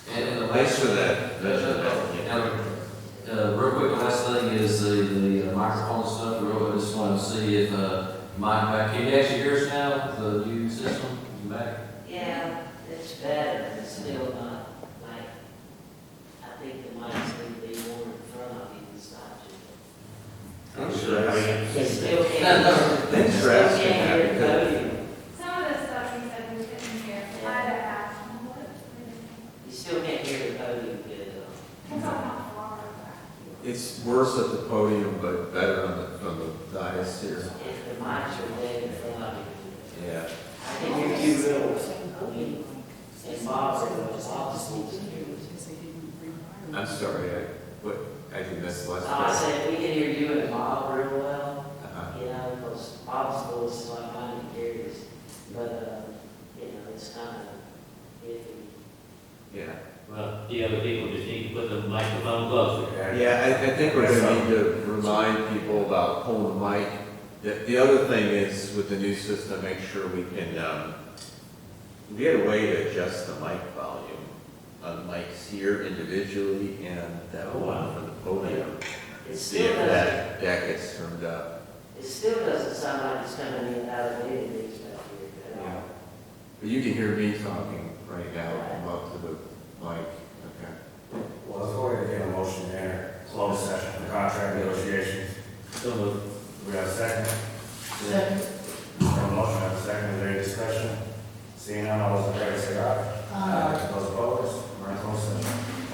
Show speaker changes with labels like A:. A: uh, Thanks for that.
B: That's a problem.
C: Uh, real quick, the last thing is the, the uh, microphone stuff, real quick, just wanna see if, uh, Mike, back, can you actually hear us now, with the new system, You back?
D: Yeah, it's better, it's still not, like, I think the mic's gonna be more in front of you, it's not you.
A: I'm
B: So, I mean,
D: You still can't,
A: Thanks for
D: still
A: asking
D: can't hear
A: that,
D: the
A: because
D: podium,
E: Some of the stuff he said we couldn't hear, I had to ask him, what?
D: you still can't hear the podium good though.
E: It's all not far back.
A: it's worse at the podium, but better on the, from the dais here.
D: If the mics are way in front of you,
A: Yeah.
D: I can hear you real, I mean, and Bob's, Bob's needs to hear you.
A: I'm sorry, I, what, I think that's the last.
D: Oh, I
A: question.
D: said, we can hear you and Bob real well.
A: Uh-huh.
D: You know, those obstacles like mine and Gary's, but, uh, you know, it's kind of iffy.
A: Yeah.
F: Well, the other people just need to put the microphone closer.
A: Yeah, I, I think we're gonna need to remind people about pulling the mic. The, the other thing is with the new system, make sure we can, um, we had a way to adjust the mic volume on mics here individually and that one for the podium.
D: It
A: See
D: still
A: if
D: doesn't,
A: that, that gets turned up.
D: it still doesn't sound like it's coming in out of any of these back here, but, uh,
A: But you can hear me talking right now, I'm up to the mic, okay?
G: Well, let's go ahead and get a motion to enter closed session for contract negotiations.
F: So moved.
G: We have a second? Second. We have a motion, we have a second, is there any discussion? Seeing none, all those in favor say aye. Aye. Those opposed, we're in closed session.